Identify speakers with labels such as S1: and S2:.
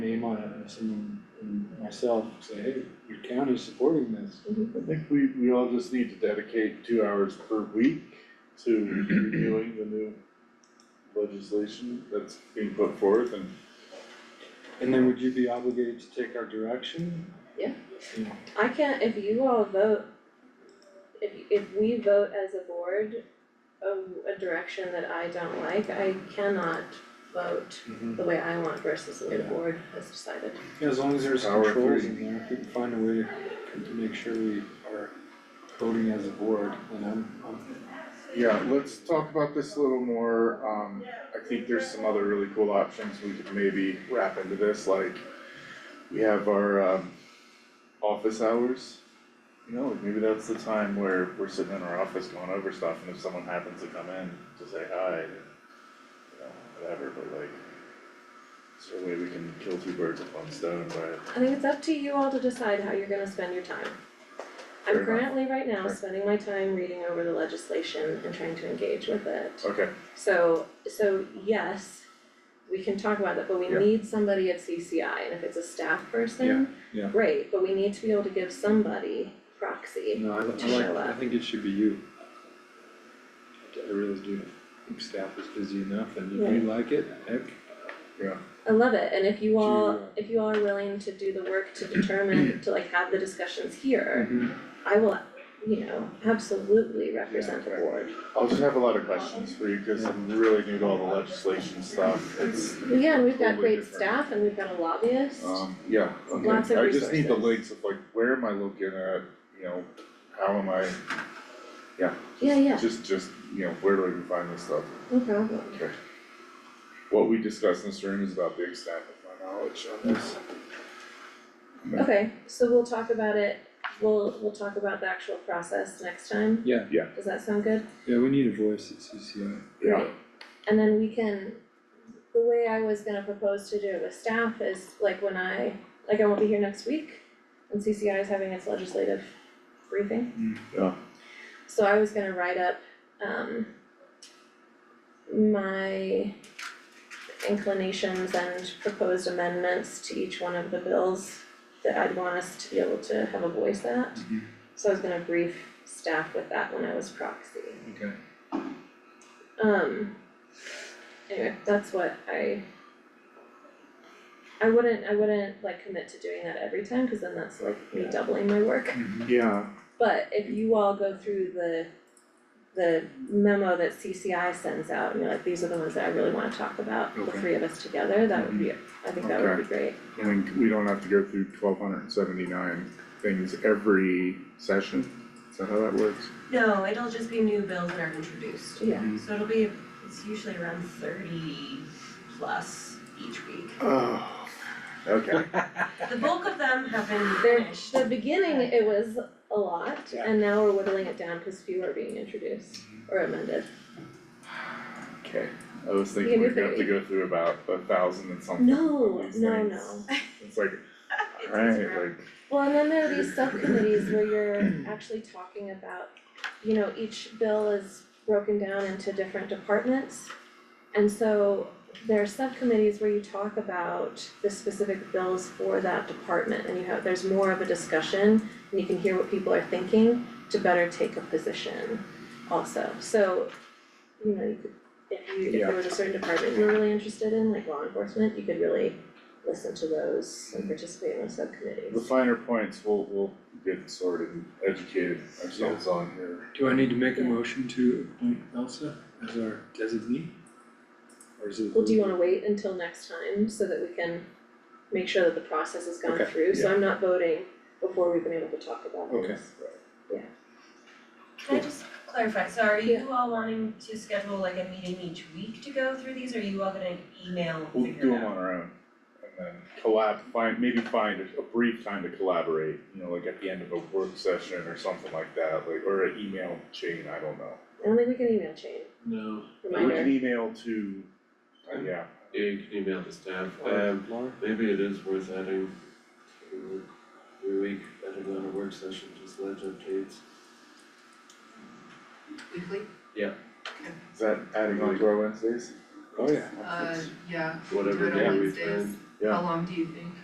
S1: name on it, and someone, and myself, say, hey, your county's supporting this.
S2: I think we, we all just need to dedicate two hours per week to reviewing the new legislation that's being put forth and
S1: And then would you be obligated to take our direction?
S3: Yeah.
S1: Yeah.
S3: I can't, if you all vote, if, if we vote as a board um, a, a direction that I don't like, I cannot vote the way I want versus the way the
S1: Yeah.
S3: board has decided.
S1: mm-hmm. Yeah, As long as there's
S2: Power of
S1: controls
S2: three.
S1: in there, if we can find a way to, to make sure we are voting as a board, and I'm, I'm,
S2: Yeah, let's talk about this a little more, um, I think there's some other really cool options we could maybe wrap into this, like we have our, um, office hours. You know, like maybe that's the time where we're sitting in our office going over stuff, and if someone happens to come in to say hi, and, you know, whatever, but like, is there a way we can kill two birds with one stone by
S3: I think it's up to you all to decide how you're gonna spend your time.
S2: Fair
S3: I'm
S2: enough.
S3: currently right now
S2: Fair.
S3: spending my time reading over the legislation and trying to engage with it.
S2: Okay,
S3: So, so yes, we can talk about that, but we
S2: Yeah.
S3: need somebody at CCI, and if it's a staff person,
S1: Yeah, yeah.
S3: great, but we need to be able to give somebody proxy.
S1: no, I,
S3: To
S1: I
S3: show
S1: like, I
S3: up.
S1: think it should be you. I really do, I think staff is busy enough, and if you like it, heck,
S3: I love it, and if you all,
S1: To, uh,
S3: if you all are willing to do the work to determine, to like have the discussions here,
S1: Mm-hmm.
S3: I will, you know, absolutely represent the
S2: okay.
S3: board.
S2: I'll just have a lot of questions for you, cause I'm really new to all the legislation stuff, it's
S3: Well, Yeah, and we've got
S2: Totally
S3: great
S2: different.
S3: staff, and we've got a lobbyist,
S1: Uh,
S2: Um, yeah, okay,
S3: Lots of
S2: I just need the
S3: resources.
S2: links of like, where am I looking at, you know, how am I,
S3: yeah, yeah,
S2: just, just, you know, where do I even find this stuff?
S3: no problem.
S2: Okay. What we discuss in this room is about the extent of my knowledge on this. Yeah.
S3: Okay, so we'll talk about it, we'll, we'll talk about the actual process next time.
S1: Yeah.
S2: Yeah.
S3: Does that sound good?
S1: yeah, we need a voice at CCI.
S2: Yeah,
S3: Great. And then we can, the way I was gonna propose to do it with staff is like when I, like I won't be here next week and CCI is having its legislative briefing.
S2: Mm, yeah,
S3: So I was gonna write up, um, my inclinations and proposed amendments to each one of the bills that I'd want us to be able to have a voice at.
S1: Mm-hmm.
S3: So I was gonna brief staff with that when I was proxy.
S1: Okay.
S3: Um, anyway, that's what I. I wouldn't, I wouldn't like commit to doing that every time, cause then that's like me doubling my work.
S2: yeah,
S3: But if you all go through the, the memo that CCI sends out, and you're like, these are the ones that I really wanna talk about, the
S1: Okay. Mm-hmm.
S3: three of us together, that would be, I think that would be great.
S2: I mean, we don't have to go through twelve hundred and seventy-nine things every session, is that how that works?
S4: No, it'll just be new bills that are introduced.
S3: Yeah,
S1: Mm-hmm.
S4: So it'll be, it's usually around thirty plus each week.
S2: Oh, okay,
S4: The bulk of them have been
S3: They're-
S4: finished.
S3: the beginning, it was a lot,
S1: Mm-hmm. Yeah.
S3: and now we're whittling it down, cause few are being introduced or amended.
S2: okay, I was
S3: Yeah,
S2: thinking
S3: we're
S2: we'd have to
S3: very-
S2: go through about a thousand and something
S3: No,
S2: of these
S3: no,
S2: things.
S3: no.
S2: It's like,
S4: It's
S2: alright,
S4: zero.
S2: like,
S3: Well, and then there are these subcommittees where you're actually talking about, you know, each bill is broken down into different departments. And so there are subcommittees where you talk about the specific bills for that department and you have, there's more of a discussion and you can hear what people are thinking to better take a position also. So, you know, you could, if you, if there was a certain department you were really interested in, like law enforcement, you could really listen to those and participate in those subcommittees.
S2: The finer points, we'll, we'll get sorted and educated ourselves on here.
S1: Do I need to make a
S3: Yeah.
S1: motion to appoint Elsa as our designee? Or is it?
S3: Well, do you wanna wait until next time so that we can make sure that the process has gone
S1: Okay,
S3: through, so
S2: yeah.
S3: I'm not voting before we've been able to talk about this.
S1: Okay.
S4: Can I just clarify, so are
S3: Yeah.
S4: you all wanting to schedule like a meeting each week to go through these, or are you all gonna email,
S2: We'll
S4: figure it out?
S2: do them on our own. And then collab, find, maybe find a a brief time to collaborate, you know, like at the end of a work session or something like that, like, or an email chain, I don't know.
S3: I don't think we can email chain,
S5: No,
S2: We can
S3: reminder,
S2: email to, uh, yeah,
S5: yeah, you can email the staff,
S1: Or
S5: um,
S1: Laura?
S5: maybe it is worth adding to every week, adding on a work session, just ledge updates.
S6: Weekly,
S2: is that adding on to our Wednesdays?
S1: Oh, yeah.
S6: uh, yeah, we do
S5: Whatever
S6: it
S5: day
S6: on
S5: we
S6: Wednesdays,
S5: find.
S2: Yeah.
S6: How long do you think?